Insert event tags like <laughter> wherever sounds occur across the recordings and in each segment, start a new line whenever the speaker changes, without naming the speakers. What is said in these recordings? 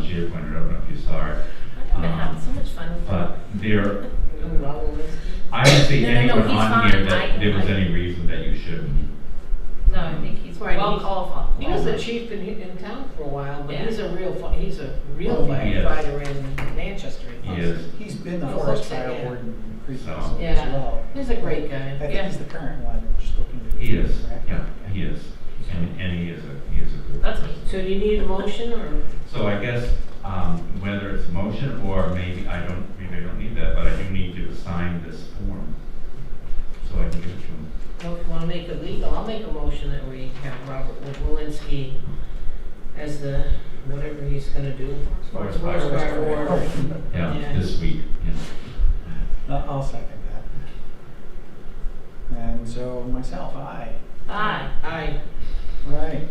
Peter pointed out, I don't know if you saw it.
I've been having so much fun with
But there,
him.
I don't see
No, no, no,
anyone
he's
on here
fine. I-
that there was
I-
any reason that you shouldn't.
No, I think he's
Right,
well
he's-
qualified.
He was the chief in, in town for a while, but he's a real, fi- he's a real
Well,
Oh, he is.
firefighter in Manchester.
He is,
He's been the
Oh,
forest
okay,
fire
yeah.
warden previously
So-
Yeah.
as well.
He's a great guy.
I think
Yeah.
he's the current one, we're just looking to.
he is,
correct?
yeah, he is, and, and he is a, he is a good
That's me.
person.
So do you need a motion or?
So I guess, um, whether it's motion or maybe, I don't, maybe I don't need that, but I do need to sign this form. So I can give it to him.
Want to make it legal? I'll make a motion that we have Robert Walensky as the, whatever he's gonna do.
Forest fire
Forest fire
warden.
warden.
Yeah,
Yeah.
this week, yeah.
Oh, <laughs> No, I'll second that. And so myself, aye.
Aye.
Aye.
Right.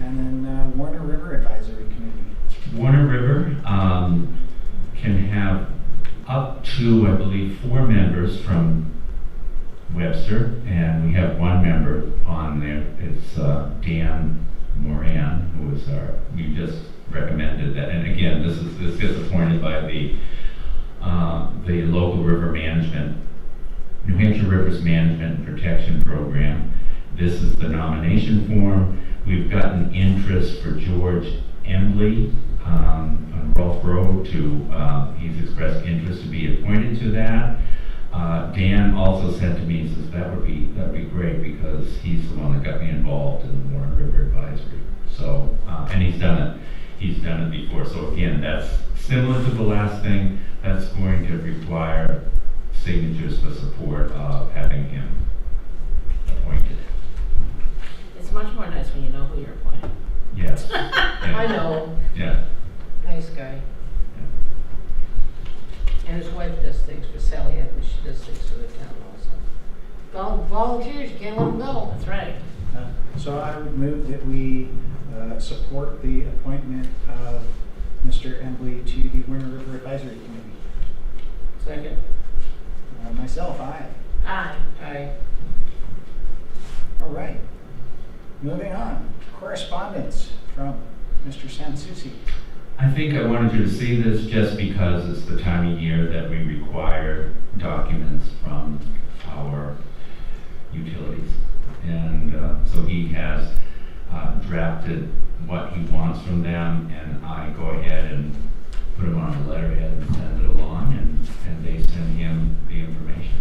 And then uh, Warner River Advisory Committee.
Warner River um, can have up to, I believe, four members from Webster, and we have one member on there. It's uh, Dan Moran, who is our, we just recommended that. And again, this is, this gets appointed by the, uh, the local river management, New Hampshire Rivers Management Protection Program. This is the nomination form. We've gotten interest for George Embley um, on Rolf Road to, uh, he's expressed interest to be appointed to that. Uh, Dan also said to me, he says, that would be, that'd be great because he's the one that got me involved in the Warren River Advisory. So, uh, and he's done it, he's done it before. So again, that's similar to the last thing. That's going to require signatures for support of having him appointed.
It's much more nice when you know who you're <laughs> appointing.
Yes. Yeah.
I know,
Yeah.
nice guy. And his wife does things for Sally Evans, she does things for the town also. Vol- Volunteers, you can't let them go.
That's right.
Uh, So I would move that we uh, support the appointment of Mr. Embley to the Warner River Advisory Committee.
Second.
Uh, Myself, aye.
Aye.
Aye.
All right. Moving on, correspondence from Mr. Sansucci.
I think I wanted you to see this just because it's the time of year that we require documents from our utilities. And uh, so he has uh, drafted what he wants from them, and I go ahead and put them on a letterhead and send it along, and, and they send him the information.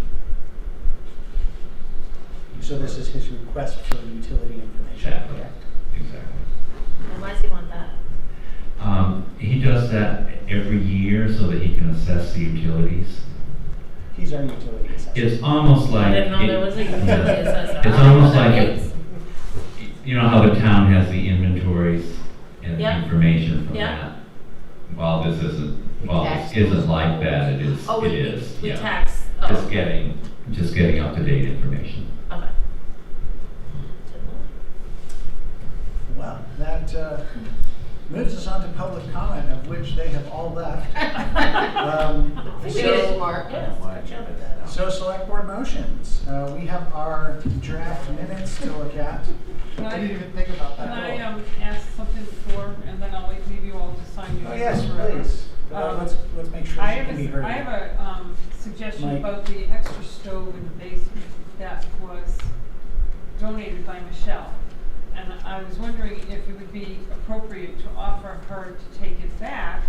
So this is his request for utility information.
Exactly.
correct?
Exactly.
And why does he want that?
Um, He does that every year so that he can assess the utilities.
He's our utility assessor.
It's almost like.
I didn't know there
<laughs>
was a utility
Yeah.
assessor.
It's almost like, it-
Yes.
you know how the town has the inventories and the
Yeah.
information from
Yeah.
that? While this isn't,
We
while this
tax
isn't
those
like that, it is,
Oh,
it
we, we,
is,
we
yeah.
tax, oh,
Just
okay.
getting, just getting up-to-date information.
Well, that uh, moves us on to public comment, of which they have all left. Um,
We
so-
did smart. Yes, good job at that.
So select board motions. Uh, We have our draft minutes to look at.
Can
I
I,
didn't even think about that.
can I,
at all.
um, ask something before, and then I'll leave you all to sign you.
Oh, yes,
whatever?
please. Uh,
Um,
Let's, let's make sure
I
she
have
can be
a,
heard.
I have a, um, suggestion
Mike.
about the extra stove in the basement that was donated by Michelle. And I was wondering if it would be appropriate to offer her to take it back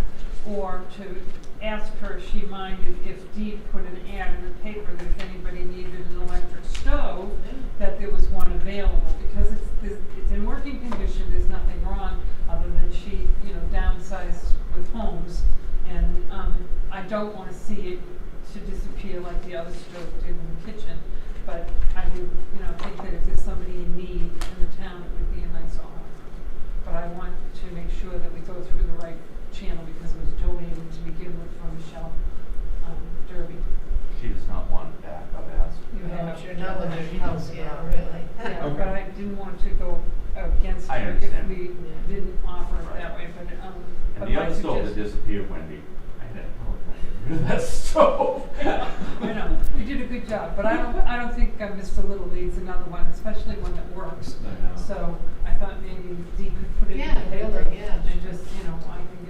or to ask her if she minded if Dee put an ad in the paper that if anybody needed an electric stove, that there was one available, because it's, it's it's in working condition, there's nothing wrong, other than she, you know, downsized with homes. And, um, I don't wanna see it to disappear like the other stove did in the kitchen, but I do, you know, think that if there's somebody in need in the town, it would be a nice offer. But I want to make sure that we go through the right channel, because it was donated to begin with from Michelle, um, Derby.
She does not want it back, I've asked.
You have-
Sure, not with their house,
uh,
yeah, really.
Yeah,
Okay.
but I didn't want to go against
I
it if
understand.
we
Yeah.
didn't offer it
Right.
that way, but, um, but
And the
my
other stove that
suggestion.
disappeared, Wendy, I had to, oh, I had to get rid of <laughs> that
<laughs>
stove.
I know, you did a good job, but I don't, I don't think uh, Mr. Little needs another one, especially one that works.
I know.
So I thought maybe Dee could put it in the
Yeah,
paper
really, yeah.
and just, you know, I can get